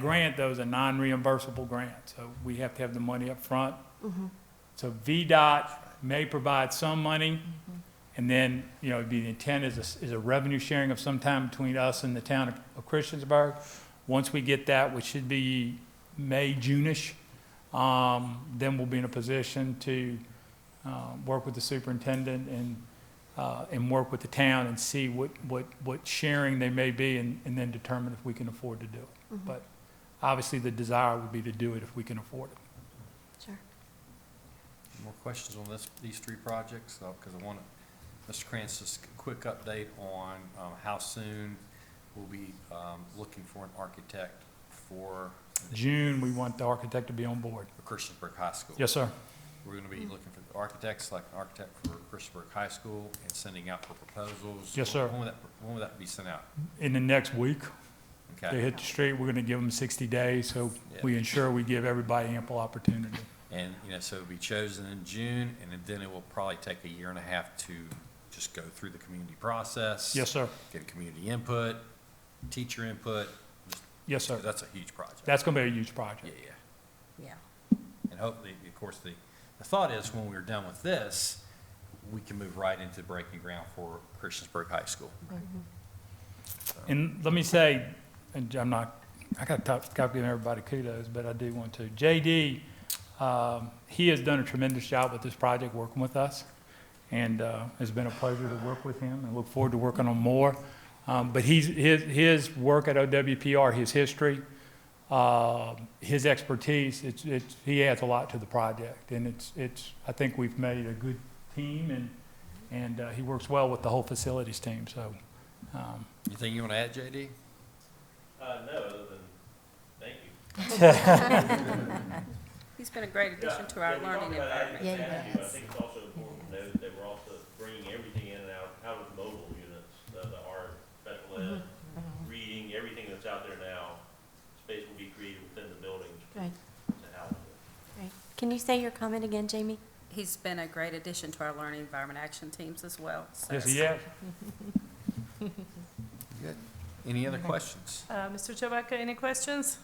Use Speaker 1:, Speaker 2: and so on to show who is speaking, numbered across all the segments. Speaker 1: grant, though, is a non-reimbursable grant, so we have to have the money up front. So VDOT may provide some money, and then, you know, it'd be the intent is a, is a revenue sharing of some time between us and the town of- of Christiansburg. Once we get that, which should be May, June-ish, um, then we'll be in a position to, uh, work with the superintendent and, uh, and work with the town and see what, what, what sharing they may be and, and then determine if we can afford to do it. But obviously, the desire would be to do it if we can afford it.
Speaker 2: Sure.
Speaker 3: More questions on this, these three projects, because I want to, Mr. Krantz, just a quick update on um, how soon we'll be um, looking for an architect for the
Speaker 1: June, we want the architect to be on board.
Speaker 3: Christiansburg High School.
Speaker 1: Yes, sir.
Speaker 3: We're going to be looking for architects, like an architect for Christiansburg High School, and sending out for proposals.
Speaker 1: Yes, sir.
Speaker 3: When will that, when will that be sent out?
Speaker 1: In the next week, they
Speaker 3: Okay.
Speaker 1: hit the street, we're gonna give them sixty days, so we
Speaker 3: Yeah.
Speaker 1: ensure we give everybody ample opportunity.
Speaker 3: And, you know, so it'll be chosen in June, and then it will probably take a year and a half to just go through the community process.
Speaker 1: Yes, sir.
Speaker 3: get community input, teacher input.
Speaker 1: Yes, sir.
Speaker 3: That's a huge project.
Speaker 1: That's gonna be a huge
Speaker 3: Yeah,
Speaker 1: project.
Speaker 3: yeah.
Speaker 2: Yeah.
Speaker 3: And hopefully, of course, the, the thought is when we're done with this, we can move right into breaking ground for Christiansburg High School.
Speaker 1: And let me say, and I'm not, I gotta top, gotta give everybody kudos, but I do want to. JD, um, he has done a tremendous job with this project, working with us. And, uh, it's been a pleasure to work with him and look forward to working on more. Um, but he's, his, his work at OWPR, his history, uh, his expertise, it's, it's, he adds a lot to the project. And it's, it's, I think we've made a good team and, and, uh, he works well with the whole facilities team, so, um,
Speaker 3: Anything you want to add, JD?
Speaker 4: Uh, no, other than, thank you.
Speaker 5: He's been a great addition to our
Speaker 4: Yeah, we
Speaker 5: learning
Speaker 4: talked about adding
Speaker 5: environment.
Speaker 2: Yeah, he
Speaker 4: value. I
Speaker 2: has.
Speaker 4: think it's also important to note that we're also bringing everything in and out, out of mobile units, uh, the art, special ed, reading, everything that's out there now. Space will be created within the buildings
Speaker 2: Right,
Speaker 4: to house it.
Speaker 2: right. Can you say your comment again, Jamie?
Speaker 5: He's been a great addition to our learning environment action teams as well. so-
Speaker 1: Yes, yes.
Speaker 3: Good. Any other questions?
Speaker 6: Uh, Mr. Chewbacca, any questions?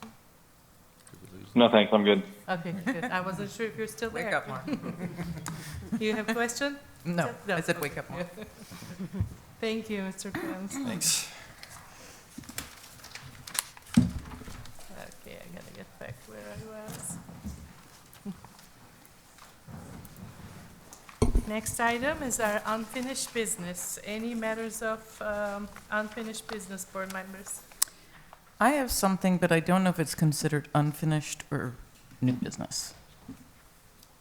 Speaker 3: Did we lose-
Speaker 7: No, thanks. I'm good.
Speaker 6: Okay, good. I wasn't sure if you're still
Speaker 8: Wake
Speaker 6: there.
Speaker 8: up more.
Speaker 6: You have a question?
Speaker 8: No,
Speaker 6: No,
Speaker 8: I said wake up more.
Speaker 6: Thank you, Mr. Kranz.
Speaker 3: Thanks.
Speaker 6: Okay, I gotta get back to where I was. Next item is our unfinished business. Any matters of um, unfinished business, board members?
Speaker 8: I have something, but I don't know if it's considered unfinished or new business.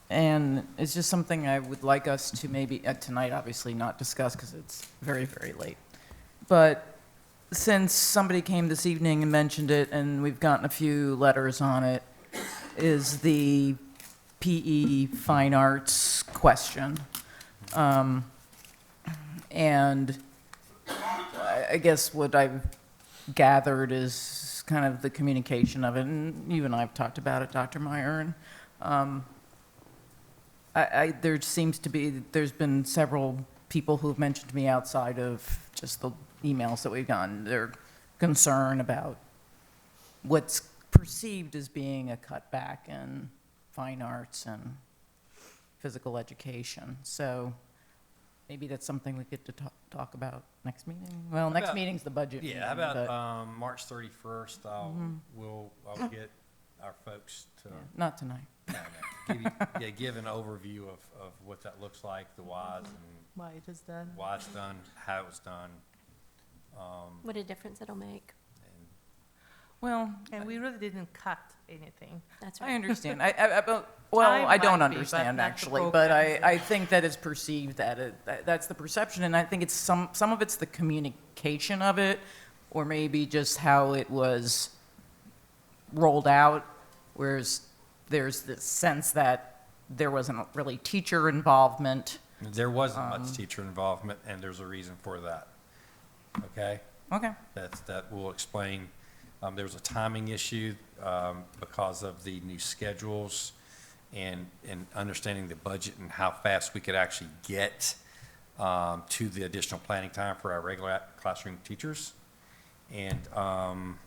Speaker 8: And it's just something I would like us to maybe, uh, tonight obviously not discuss because it's very, very late. But since somebody came this evening and mentioned it and we've gotten a few letters on it, is the PE fine arts question. Um, And I I guess what I've gathered is kind of the communication of it, and you and I have talked about it, Dr. Meyer, and um, I, I, there seems to be, there's been several people who've mentioned to me outside of just the emails that we've gotten, their concern about what's perceived as being a cutback in fine arts and physical education. So maybe that's something we get to talk, talk about next meeting? Well, next
Speaker 3: about-
Speaker 8: meeting's the budget.
Speaker 3: Yeah, how
Speaker 8: meeting,
Speaker 3: about,
Speaker 8: Mm-hmm. but- Mm-hmm.
Speaker 3: um, March thirty-first, I'll, we'll, I'll get our folks to,
Speaker 8: Yeah, Not tonight.
Speaker 3: give you- yeah, give an overview of, of what that looks like, the whys and
Speaker 6: Why it is done?
Speaker 3: why it's done, how it was done,
Speaker 2: What a difference it'll make.
Speaker 3: and
Speaker 8: Well,
Speaker 6: And we really didn't cut anything.
Speaker 2: That's
Speaker 8: I
Speaker 2: right.
Speaker 8: understand. I, I, I- but- well,
Speaker 6: Time
Speaker 8: I don't
Speaker 6: might be, but
Speaker 8: understand
Speaker 6: not the
Speaker 8: actually, but I,
Speaker 6: programs.
Speaker 8: I think that is perceived that it, that- that's the perception, and I think it's some, some of it's the communication of it, or maybe just how it was rolled out, whereas there's this sense that there wasn't really teacher involvement.
Speaker 3: There wasn't much
Speaker 8: Um.
Speaker 3: teacher involvement, and there's a reason for that. Okay?
Speaker 8: Okay,
Speaker 3: That's, that will explain, um, there was a timing issue, um, because of the new schedules and, and understanding the budget and how fast we could actually get, um, to the additional planning time for our regular classroom teachers. And um,